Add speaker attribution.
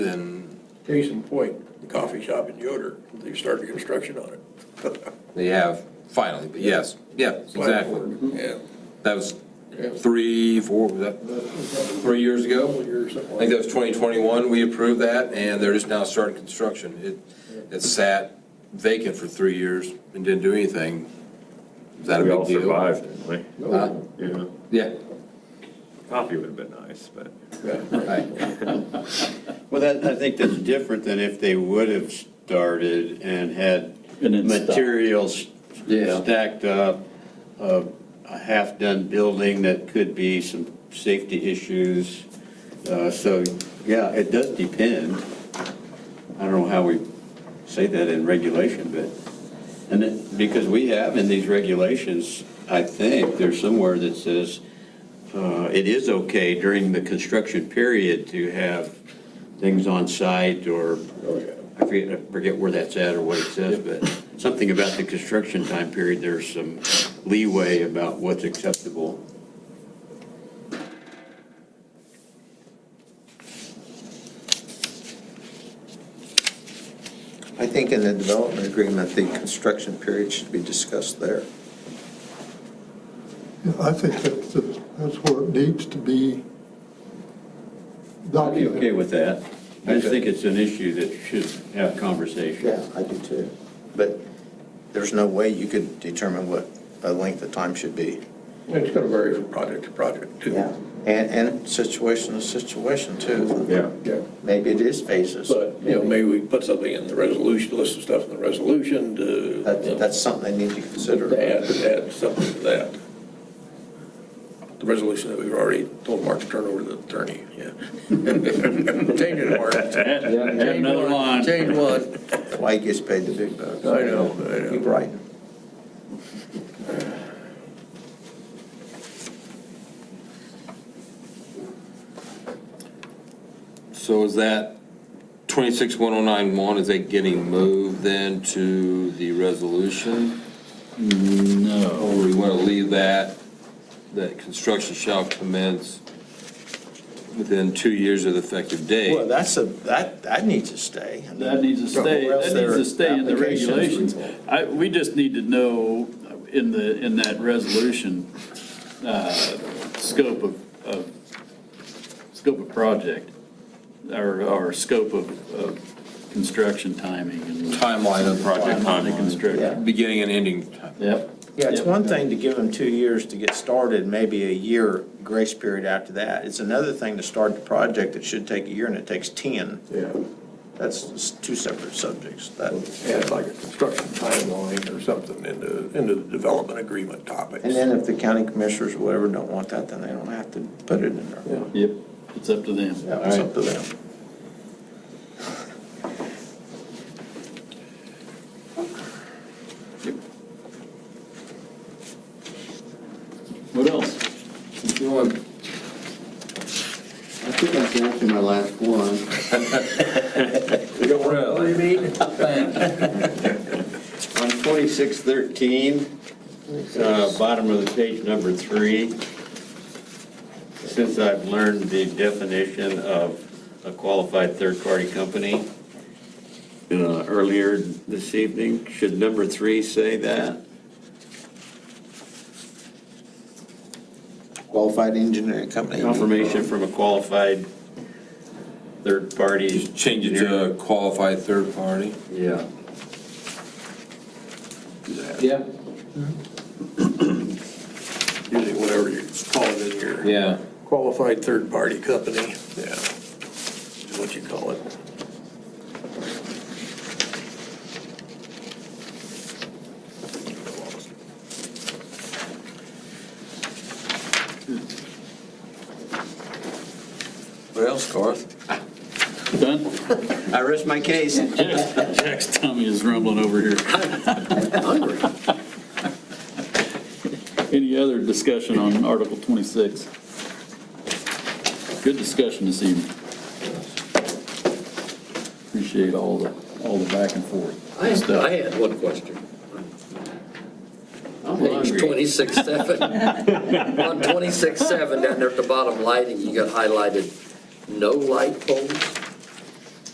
Speaker 1: Case in point, the coffee shop in Yoder, they've started construction on it.
Speaker 2: They have, finally, but yes, yeah, exactly.
Speaker 1: Yeah.
Speaker 3: Mm-hmm.
Speaker 2: That was three, four, was that three years ago? I think that was 2021, we approved that, and they're just now starting construction. It, it sat vacant for three years and didn't do anything. Is that a
Speaker 4: We
Speaker 2: big
Speaker 4: all
Speaker 2: deal?
Speaker 4: survived, didn't
Speaker 3: uh,
Speaker 2: Huh?
Speaker 4: we? Yeah.
Speaker 2: Yeah,
Speaker 4: Coffee would have been nice, but.
Speaker 2: right.
Speaker 5: Well, that, I think that's different than if they would have started and had
Speaker 6: And then stopped.
Speaker 5: materials
Speaker 6: Yeah.
Speaker 5: stacked up, a, a half-done building that could be some safety issues. Uh, so, yeah, it does depend. I don't know how we say that in regulation, but, and it- because we have in these regulations, I think, there's somewhere that says, uh, it is okay during the construction period to have things on site or, I forget, I forget where that's at or what it says, but something about the construction time period, there's some leeway about what's acceptable.
Speaker 3: I think in the development agreement, the construction period should be discussed there.
Speaker 7: Yeah, I think that's, that's where it needs to be
Speaker 5: I'd be okay
Speaker 7: documented.
Speaker 5: with that. I just think it's an issue that should have conversation.
Speaker 3: Yeah, I do too. But there's no way you could determine what a length of time should be.
Speaker 1: It's gonna vary from project to project, too.
Speaker 3: And, and situation to situation too.
Speaker 4: Yeah.
Speaker 1: Yeah.
Speaker 3: Maybe it is phases.
Speaker 1: But, you know, maybe we put something in the resolution, list of stuff in the resolution to.
Speaker 3: That, that's something they need to
Speaker 1: To
Speaker 3: consider.
Speaker 1: add, to add something to that. The resolution that we've already told Mark to turn over to the attorney, yeah. Change it, Mark.
Speaker 6: Add add another line.
Speaker 1: Change one.
Speaker 3: Why he gets paid the big bucks.
Speaker 1: I know, I know.
Speaker 3: You're right.
Speaker 2: So is that 261091, is that getting moved then to the resolution?
Speaker 6: No.
Speaker 2: Or we want to leave that, that construction shall commence within two years of the effective date?
Speaker 3: Well, that's a, that, that needs to stay.
Speaker 6: That needs to stay,
Speaker 3: Or else
Speaker 6: that needs
Speaker 3: their
Speaker 6: to stay in the
Speaker 3: applications would-
Speaker 6: regulations. I, we just need to know in the, in that resolution, uh, scope of, of, scope of project, or, or scope of, of construction timing and
Speaker 2: Timeline of project
Speaker 6: timeline of
Speaker 2: timeline,
Speaker 6: construction.
Speaker 2: beginning and ending time.
Speaker 6: Yep.
Speaker 3: Yeah, it's
Speaker 6: Yep.
Speaker 3: one thing to give them two years to get started, maybe a year grace period after that. It's another thing to start the project that should take a year and it takes 10.
Speaker 1: Yeah,
Speaker 3: That's s- two separate subjects. That-
Speaker 1: add like a construction timeline or something into, into the development agreement topics.
Speaker 3: And then if the county commissioners or whatever don't want that, then they don't have to put it in there.
Speaker 6: Yep, it's up to them.
Speaker 3: Yeah, It's up to them.
Speaker 6: What else?
Speaker 5: I think I got to my last one. On twenty-six thirteen, uh, bottom of the page, number three, since I've learned the definition of a qualified third-party company uh, earlier this evening, should number three say that?
Speaker 3: Qualified engineering company.
Speaker 5: Confirmation from a qualified third-party.
Speaker 2: Just change it to a qualified third party.
Speaker 5: Yeah.
Speaker 2: Yeah.
Speaker 1: Usually whatever you call it in here.
Speaker 2: Yeah.
Speaker 1: Qualified third-party company. Yeah. Is what you call it.
Speaker 3: What else, Garth?
Speaker 6: Done?
Speaker 5: I rest my case.
Speaker 6: Jack's Jack's tummy is rumbling over here. Any other discussion on Article 26? Good discussion this evening. Appreciate all the, all the back and forth.
Speaker 8: I had,
Speaker 6: stuff.
Speaker 8: I had one question.
Speaker 5: I'm
Speaker 8: Page
Speaker 5: hungry.
Speaker 8: twenty-six seven. On twenty-six seven, down there at the bottom lighting, you got highlighted, no light poles.